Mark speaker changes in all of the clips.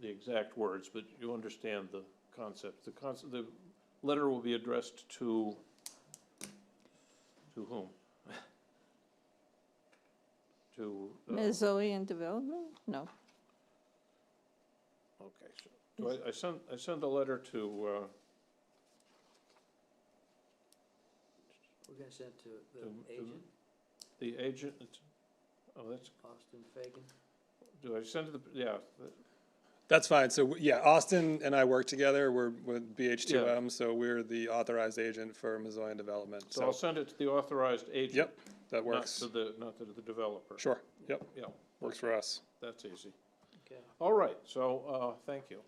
Speaker 1: the exact words, but you understand the concept. The concept, the letter will be addressed to, to whom? To, uh,
Speaker 2: Ms. Zoe in development? No.
Speaker 1: okay, so, do I, I send, I send a letter to, uh,
Speaker 3: We're gonna send to the
Speaker 1: To- to-
Speaker 3: agent,
Speaker 1: the agent, oh, that's,
Speaker 3: Austin Fagan.
Speaker 1: do I send to the, yeah,
Speaker 4: That's fine. So w- yeah, Austin and I work together. We're with BH2M, so we're the authorized agent for Missoulian Development.
Speaker 1: so I'll
Speaker 4: So,
Speaker 1: send it to the authorized agent.
Speaker 4: yep, that
Speaker 1: Not
Speaker 4: works.
Speaker 1: to the, not to the developer.
Speaker 4: Sure, yep,
Speaker 1: Yeah,
Speaker 4: works for us.
Speaker 1: that's easy.
Speaker 3: Okay.
Speaker 1: All right, so, uh, thank you.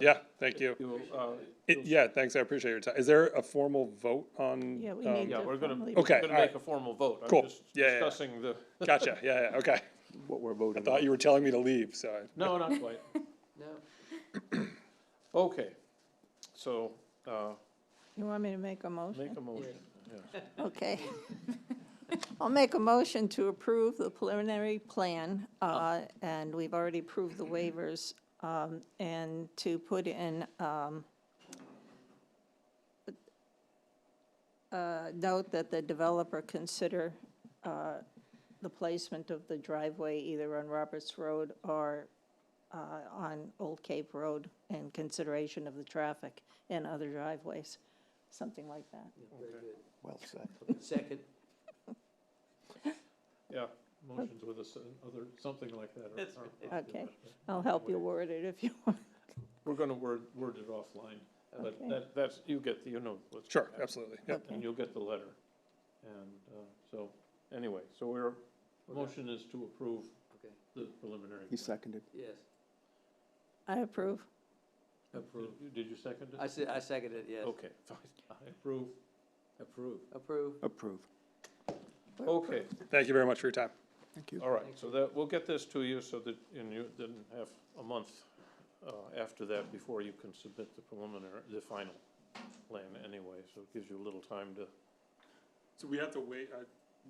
Speaker 4: Yeah, thank you.
Speaker 1: You, uh,
Speaker 4: It- Yeah, thanks, I appreciate your time. Is there a formal vote on?
Speaker 2: Yeah, we
Speaker 4: um,
Speaker 2: need
Speaker 1: yeah,
Speaker 2: to
Speaker 1: we're gonna,
Speaker 2: formally.
Speaker 1: we're
Speaker 4: Okay,
Speaker 1: gonna
Speaker 4: all right.
Speaker 1: make a formal vote.
Speaker 4: Cool.
Speaker 1: I'm just
Speaker 4: Yeah, yeah, yeah.
Speaker 1: discussing the,
Speaker 4: Gotcha, yeah, yeah, okay.
Speaker 5: what we're voting
Speaker 4: Thought
Speaker 5: on.
Speaker 4: you were telling me to leave, so. I-
Speaker 1: no, not quite.
Speaker 3: No,
Speaker 1: Okay, so, uh,
Speaker 2: You want me to make a
Speaker 1: make
Speaker 2: motion?
Speaker 1: a motion.
Speaker 2: Okay. I'll make a motion to approve the preliminary plan, uh, and we've already approved the waivers, um, and to put in, um, uh, note that the developer consider, uh, the placement of the driveway either on Roberts Road or, uh, on Old Cape Road in consideration of the traffic and other driveways, something like that.
Speaker 3: yeah, very
Speaker 1: Okay.
Speaker 3: good.
Speaker 5: Well said.
Speaker 3: Second,
Speaker 1: Yeah, motions with a, s- other, something like that. are- are-
Speaker 2: Okay, I'll help you word it if you want.
Speaker 1: We're gonna word, word it offline, but
Speaker 2: Okay.
Speaker 1: that, that's, you get, the you know. what's-
Speaker 4: Sure, absolutely, yep.
Speaker 1: And you'll get the letter. And, uh, so, anyway, so we're, motion is to approve
Speaker 3: okay,
Speaker 1: the preliminary.
Speaker 5: He
Speaker 1: plan.
Speaker 5: seconded.
Speaker 3: yes,
Speaker 2: I approve.
Speaker 3: approve.
Speaker 1: Did- Did you second it?
Speaker 3: I said, I second it, yes.
Speaker 1: Okay, fine, I approve. Approve.
Speaker 3: Approve,
Speaker 5: Approve.
Speaker 2: We're
Speaker 1: Okay,
Speaker 4: Thank you very much for your time.
Speaker 5: Thank you.
Speaker 1: all right, so that, we'll get this to you so that, and you didn't have a month uh, after that before you can submit the preliminary, the final plan anyway, so it gives you a little time to,
Speaker 4: So we have to wait, uh,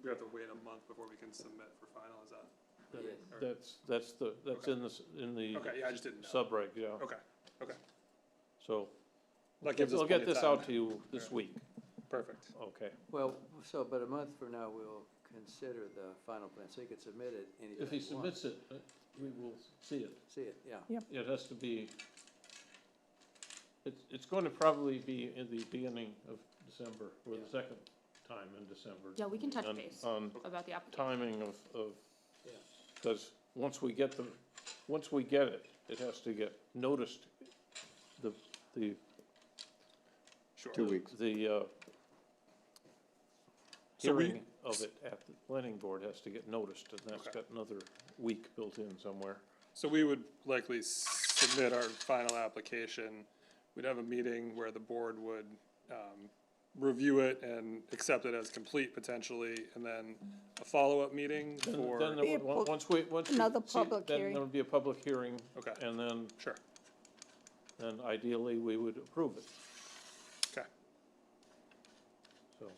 Speaker 4: we have to wait a month before we can submit for final, is that?
Speaker 3: yes.
Speaker 1: that's, that's the, that's in the, s- in the
Speaker 4: yeah, I just didn't
Speaker 1: subreg, yeah,
Speaker 4: Okay,
Speaker 1: so.
Speaker 4: That gives us
Speaker 1: I'll get
Speaker 4: plenty of
Speaker 1: this
Speaker 4: time.
Speaker 1: out to you this
Speaker 4: Yeah.
Speaker 1: week,
Speaker 4: perfect.
Speaker 1: okay,
Speaker 3: Well, so, but a month from now, we'll consider the final plan, so you can submit it anytime
Speaker 1: if he
Speaker 3: you want.
Speaker 1: submits it, uh, we will see it.
Speaker 3: See it, yeah.
Speaker 1: It has to be, it's, it's going to probably be in the beginning of December, or the
Speaker 3: Yeah.
Speaker 1: second time in December.
Speaker 6: Yeah, we can touch
Speaker 1: on-
Speaker 6: base
Speaker 1: On
Speaker 6: about the application.
Speaker 1: timing of, of,
Speaker 3: Yeah.
Speaker 1: because once we get the, once we get it, it has to get noticed, the, the.
Speaker 4: Sure.
Speaker 5: Two weeks.
Speaker 1: The, uh,
Speaker 4: So we-
Speaker 1: hearing of it at the planning board has to get noticed, and that's
Speaker 4: Okay.
Speaker 1: got another week built in somewhere.
Speaker 4: So we would likely submit our final application. We'd have a meeting where the board would, um, review it and accept it as complete potentially, and then a follow-up meeting
Speaker 1: Then- Then,
Speaker 4: for,
Speaker 1: there would-
Speaker 2: Be a pub-
Speaker 1: once we, once. we
Speaker 2: another
Speaker 1: see it,
Speaker 2: public
Speaker 1: Then
Speaker 2: hearing.
Speaker 1: there would be a public hearing.
Speaker 4: Okay.
Speaker 1: And then,
Speaker 4: sure,
Speaker 1: then ideally, we would approve it,
Speaker 4: okay.
Speaker 1: so.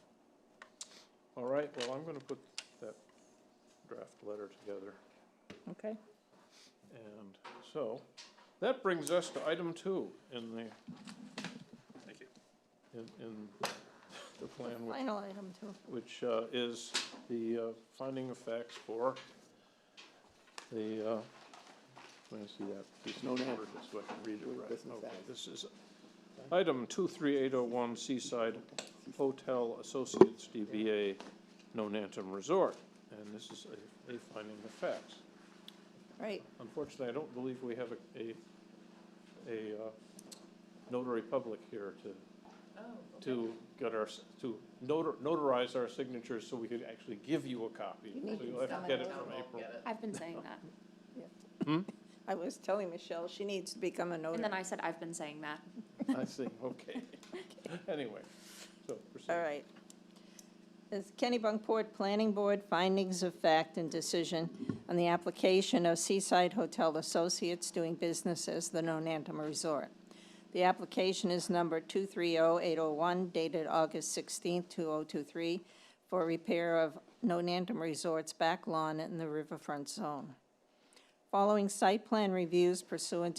Speaker 1: All right, well, I'm gonna put that draft letter together,
Speaker 2: Okay.
Speaker 1: and so, that brings us to item two in the.
Speaker 4: Thank you.
Speaker 1: In, in the plan, which
Speaker 2: Final item too.
Speaker 1: which uh, is the uh, finding of facts for the, uh, let me see that. There's
Speaker 5: no name.
Speaker 1: So I can read it
Speaker 5: Doing
Speaker 1: right.
Speaker 5: business
Speaker 1: Okay,
Speaker 5: as.
Speaker 1: this is item 23801 Seaside Hotel Associates DBA Nonantum Resort. And this is a a finding of facts.
Speaker 2: Right,
Speaker 1: Unfortunately, I don't believe we have a, a- a uh, notary public here to, Oh, to get our, s- to notar- notarize our signatures so we could actually give you a copy.
Speaker 2: You need
Speaker 1: So you'll have to
Speaker 2: someone
Speaker 1: get it
Speaker 2: else.
Speaker 1: from April.
Speaker 6: I've been saying that.
Speaker 2: I was telling Michelle, she needs to become a
Speaker 6: And
Speaker 2: notary.
Speaker 6: then I said, I've been saying that.
Speaker 1: I see, okay. Anyway, so proceed.
Speaker 2: All right. Is Kennebunkport Planning Board findings of fact and decision on the application of Seaside Hotel Associates doing business as the Nonantum Resort. The application is number 230801 dated August 16, 2023, for repair of Nonantum Resort's back lawn in the riverfront zone. Following site plan reviews pursuant